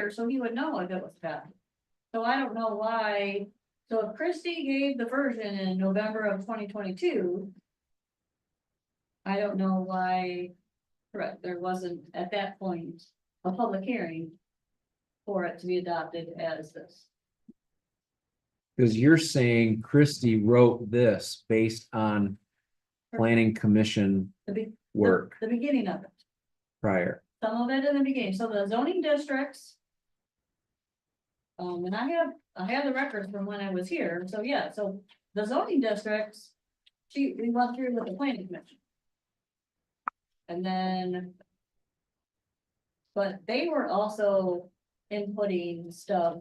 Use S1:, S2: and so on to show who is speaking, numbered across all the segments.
S1: here, so he would know if it was bad. So I don't know why, so if Christie gave the version in November of twenty twenty-two. I don't know why, correct, there wasn't at that point a public hearing. For it to be adopted as this.
S2: Cause you're saying Christie wrote this based on planning commission
S1: The be-
S2: work
S1: The beginning of it,
S2: prior.
S1: some of it in the beginning, so the zoning districts. Um, and I have, I have the records from when I was here, so yeah, so the zoning districts, she, we went through with the planning commission. And then. But they were also inputting stuff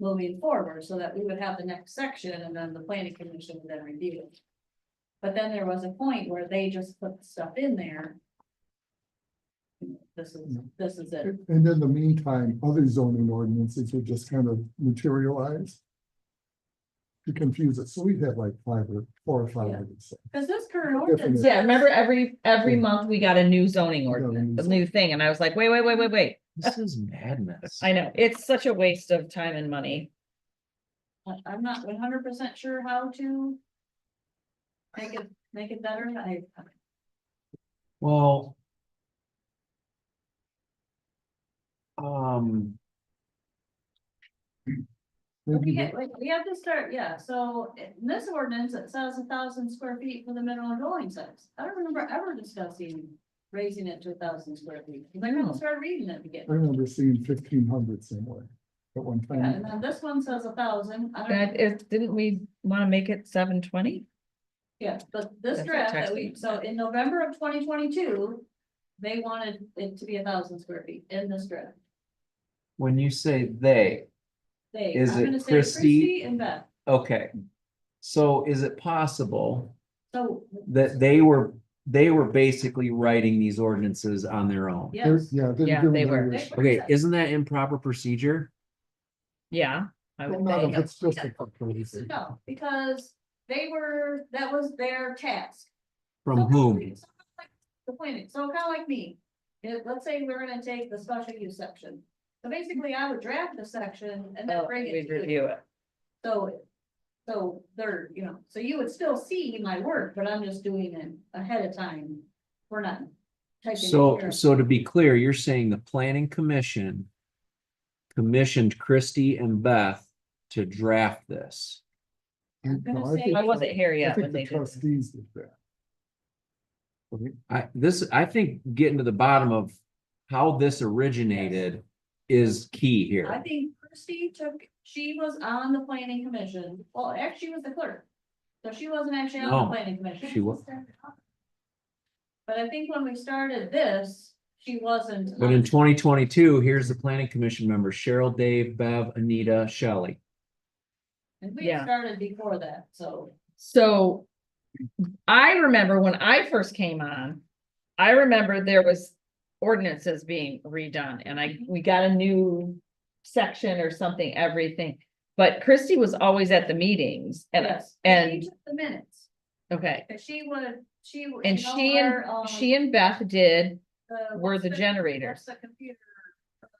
S1: moving forward, so that we would have the next section, and then the planning commission would then review it. But then there was a point where they just put stuff in there. This is, this is it.
S3: And in the meantime, other zoning ordinances would just kind of materialize. To confuse it, so we'd have like five or four or five of these.
S1: Cause this current
S3: Different.
S1: ordinance.
S4: Yeah, remember every, every
S3: Yeah.
S4: month we got a new zoning
S3: got a
S4: ordinance,
S3: new
S4: a new thing, and I was like, wait, wait, wait, wait, wait.
S2: This is madness.
S4: I know, it's such a waste of time and money.
S1: I- I'm not one hundred percent sure how to. Make it, make it better, I,
S2: Well. Um,
S1: we
S3: Maybe
S1: ha- we- we have to start, yeah, so in this ordinance, it says a thousand square feet for the minimum dwelling size. I don't remember ever discussing raising it to a thousand square feet, because I
S4: No.
S1: couldn't start reading it
S3: I
S1: again.
S3: remember seeing fifteen hundred somewhere at one
S1: Yeah, and
S3: time.
S1: then this one says a thousand, I don't,
S4: That is, didn't we wanna make it seven twenty?
S1: yeah, but this
S4: That's what
S1: draft that
S4: text
S1: we,
S4: means.
S1: so in November of twenty twenty-two. They wanted it to be a thousand square feet in this draft.
S2: when you say they,
S1: They,
S2: Is
S1: I'm
S2: it
S1: gonna say
S2: Christie?
S1: Christie and Beth,
S2: okay. So is it possible
S1: so,
S2: that they were, they were basically writing these ordinances on their own?
S3: There-
S1: yes.
S3: Yeah. there-
S4: Yeah,
S3: there
S4: they
S3: was
S4: were.
S3: others.
S2: Okay, isn't that improper procedure?
S4: Yeah. I
S3: Well,
S4: would
S3: not if
S4: think.
S3: it's just a proposal.
S1: No, because they were, that was their task.
S2: From
S1: So kinda
S2: whom?
S1: like- so kinda like The planning, so kind of like me, It- let's say we're gonna take the special use section. So basically, I would draft the section and then
S4: Oh,
S1: bring it
S4: We'd
S1: to you,
S4: review it.
S1: so. So there, you know, so you would still see my work, but I'm just doing it ahead of time, we're not. typing it
S2: So,
S1: here.
S2: so to be clear, you're saying the planning commission commissioned Christie and Beth to draft this.
S3: I-
S1: I'm gonna
S3: no, I
S1: say-
S3: think
S4: I wasn't here
S3: the- I
S4: yet
S3: think
S4: when
S3: the
S4: they did. this.
S3: trustees did that. Okay,
S2: I, this, I think getting to the bottom of how this originated is key
S1: I
S2: here.
S1: think Christie took, she was on the planning commission, well, actually, she was the clerk. So she wasn't actually on
S2: No,
S1: the planning commission.
S2: she wa-
S1: But I think when we started this, she wasn't.
S2: But in twenty twenty-two, here's the planning commission members, Cheryl, Dave, Bev, Anita, Shelley.
S1: And we had
S4: Yeah.
S1: started before that, so.
S4: So I remember when I first came on, I remember there was ordinances being redone and I,
S1: Mm-hmm.
S4: we got a new section or something, everything. But Christy was always at the meetings and,
S1: yes, and she
S4: and-
S1: took The minutes,
S4: okay,
S1: cause she would, she. would-
S4: And
S1: you know
S4: she and-
S1: where, um,
S4: she and Beth did,
S1: the-
S4: were
S1: what's
S4: the generators,
S1: What's the computer?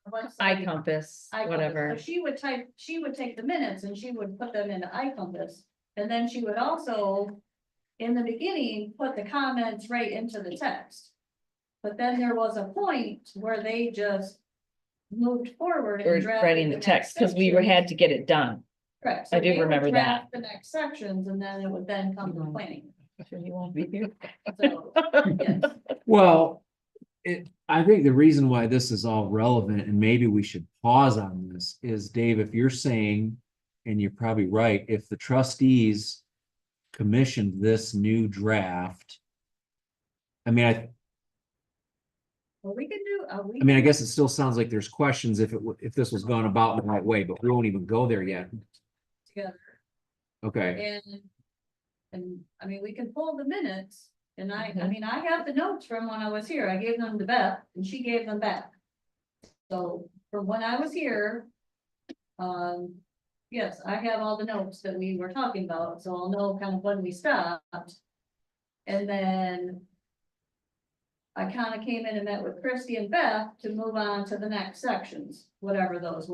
S1: the website?
S4: I compass,
S1: I Compass.
S4: whatever.
S1: So she would type, she would take the minutes and she would put them into iCompass. And then she would also, in the beginning, put the comments right into the text. But then there was a point where they just moved forward
S4: Or
S1: and drafted.
S4: writing the
S1: next
S4: text, because we were,
S1: section.
S4: had to get it done.
S1: Correct.
S4: I
S1: So
S4: do
S1: they would
S4: remember
S1: draft The next sections and then it would then come to
S4: Mhm.
S1: planning.
S4: You won't be here.
S1: So, yes.
S2: Well, it, I think the reason why this is all relevant and maybe we should pause on this is Dave, if you're saying, and you're probably right, if the trustees commissioned this new draft, I mean, I,
S1: Well, we can do, uh, we.
S2: I mean, I guess it still sounds like there's questions if it, wa- if this was gone about in the right way, but we won't even go there yet.
S1: Together.
S2: Okay,
S1: And, and, I mean, we can pull the minutes, and I, I
S4: Mhm.
S1: mean, I have the notes from when I was here, I gave them to Beth, and she gave them back. So, from when I was here, um, yes, I have all the notes that we were talking about, so I'll know kind of when we stopped. And then I kinda came in and met with Christie and Beth to move on to the next sections, whatever those